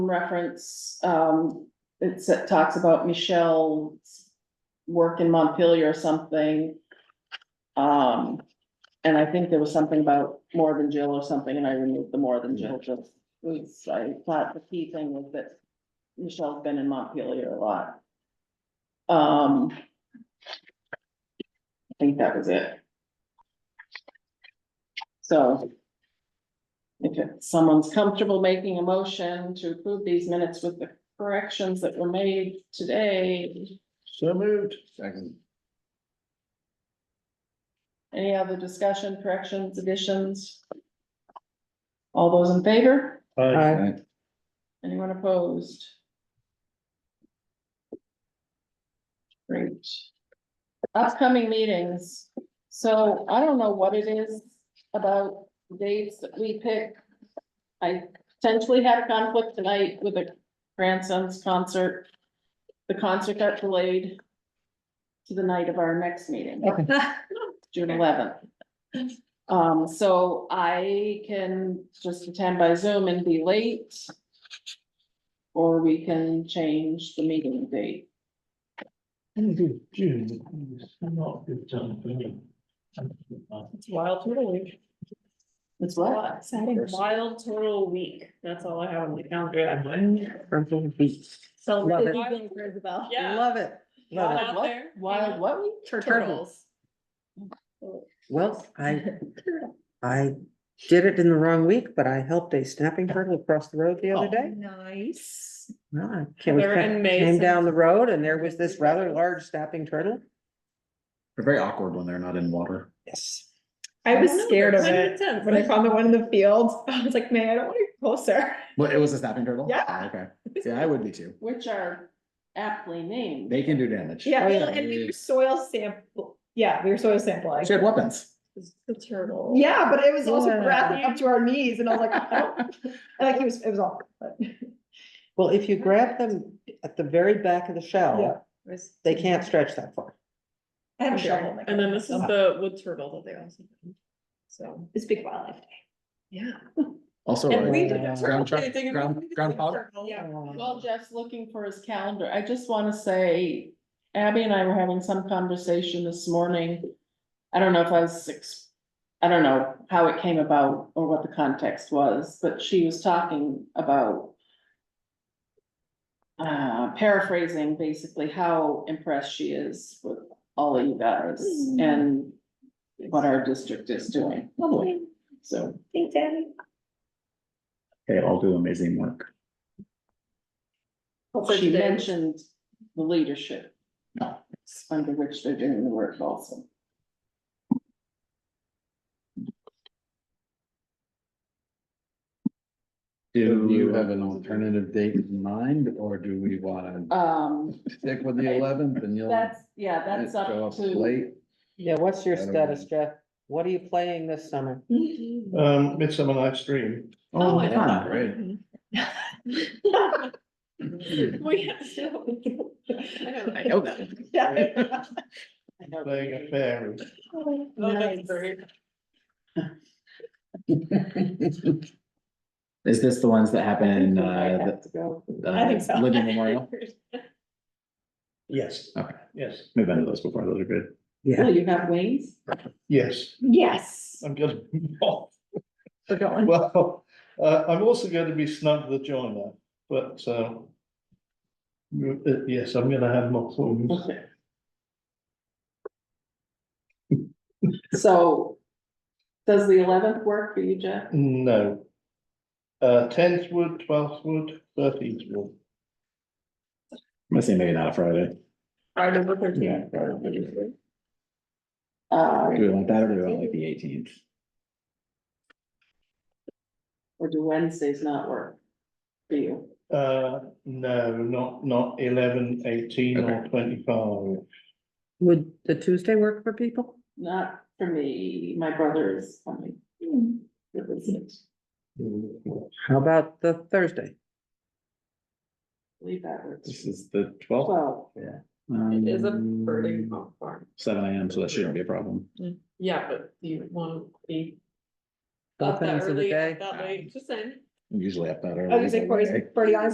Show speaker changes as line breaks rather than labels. reference, um, it's, it talks about Michelle's work in Montpelier or something. Um, and I think there was something about more than Jill or something, and I removed the more than Jill, just, was, I thought the key thing was that Michelle's been in Montpelier a lot. Um. I think that was it. So. If it- someone's comfortable making a motion to approve these minutes with the corrections that were made today,
So moved. Second.
any other discussion, corrections, additions? All those in favor?
Aye.
Anyone opposed? Great. Upcoming meetings, so I don't know what it is about dates that we pick. I potentially had a conflict tonight with a grandson's concert. The concert got delayed to the night of our next meeting. June eleventh. Um, so I can just attend by Zoom and be late. Or we can change the meeting date.
End of June, is not a good time for me.
It's wild turtle week.
It's what?
Exciting. Wild turtle week. That's all I have on the calendar. So.
Love it.
Yeah.
Love it. Love
out
it.
Wild what?
there.
Wild what?
Turtles.
Well, I, I did it in the wrong week, but I helped a snapping turtle across the road the other day.
Nice.
Well, I came-
They're Oh. in May
Came down the
since-
road and there was this rather large snapping turtle.
They're very awkward when they're not in water.
Yes.
I was
don't know,
scared of
kind
it
intense.
when I found the one in the field. I was like, man, I don't want to get closer.
What, it was a snapping turtle?
Yeah.
Oh, Okay, yeah, I would be too.
Which are aptly named.
They can do damage.
Yeah,
Oh, yeah.
and we were soil sample. Yeah, we were soil sampling.
She had weapons.
The turtle.
Yeah, but it was also
Yeah.
wrapping up to our knees, and I was like, I don't- I like it was, it was awkward. but-
Well, if you grab them at the very back of the
Yeah.
shell,
Was-
they can't stretch that far.
I have a shovel. in my
And then this is
car,
the wood turtle that they also. do. So,
so It's big wildlife. Day.
yeah.
Also,
And we
like,
did a
Ground
turtle
chuck-
day thing and
ground-
we did
groundhog?
turtle. Yeah.
Oh.
Well, Jeff's looking for his calendar. I just wanna say Abby and I were having some conversation this morning. I don't know if I was six, I don't know how it came about or what the context was, but she was talking about. Uh, paraphrasing basically how impressed she is with all of you guys and what our district is doing,
Oh,
lovely.
so.
Thanks, Abby.
They all do amazing work.
Hopefully
She
today.
mentioned the leadership. Under which they're doing the work also.
Do you have an alternative date in mind, or do we wanna
Um,
stick with the eleventh and you'll?
that's, yeah, that's up
show
to,
Late,
Yeah, what's your
I don't
status,
know.
Jeff? What are you playing this summer?
Mm-hmm.
Um, Midsummer Night's Dream.
Oh, I
yeah,
know.
right.
We have to. I know.
I know that.
Yeah.
playing a fairy.
Oh, that's
Nice.
great.
Is this the ones that happen in, uh,
have to go.
the-
I think
uh,
so.
Living Memorial?
Yes.
Okay.
Yes,
We've been to those before, those are good.
Yeah.
Will Oh, you have wings?
yes,
Yes.
I'm gonna. Well, uh, I'm also going to be snug the joiner, but, um. you- uh, Yes, I'm gonna have my thorns.
So. Does the eleventh work for you, Jeff?
No. Uh, tenth wood, twelfth wood, thirteenth wood.
I'm gonna say maybe not a Friday.
Friday the thirteenth.
Yeah, Friday the 13th.
Uh,
Do we want that or do we want like the eighteenth?
or do Wednesdays not work for you?
Uh, no, not, not eleven, eighteen or twenty-five.
Would the Tuesday work for people?
Not for me, my brother is coming. to visit.
How about the Thursday?
I Believe that works.
This is the twelfth.
Well,
It is a birding off
Mm.
farm.
Seven AM, so that shouldn't be a problem.
Yeah, but you wanna be.
Both
up that
ends of the
early,
day?
That late, just saying.
I'm Usually up that early.
Oh,
I was like, Oh, Corey's
anyway.
pretty honest.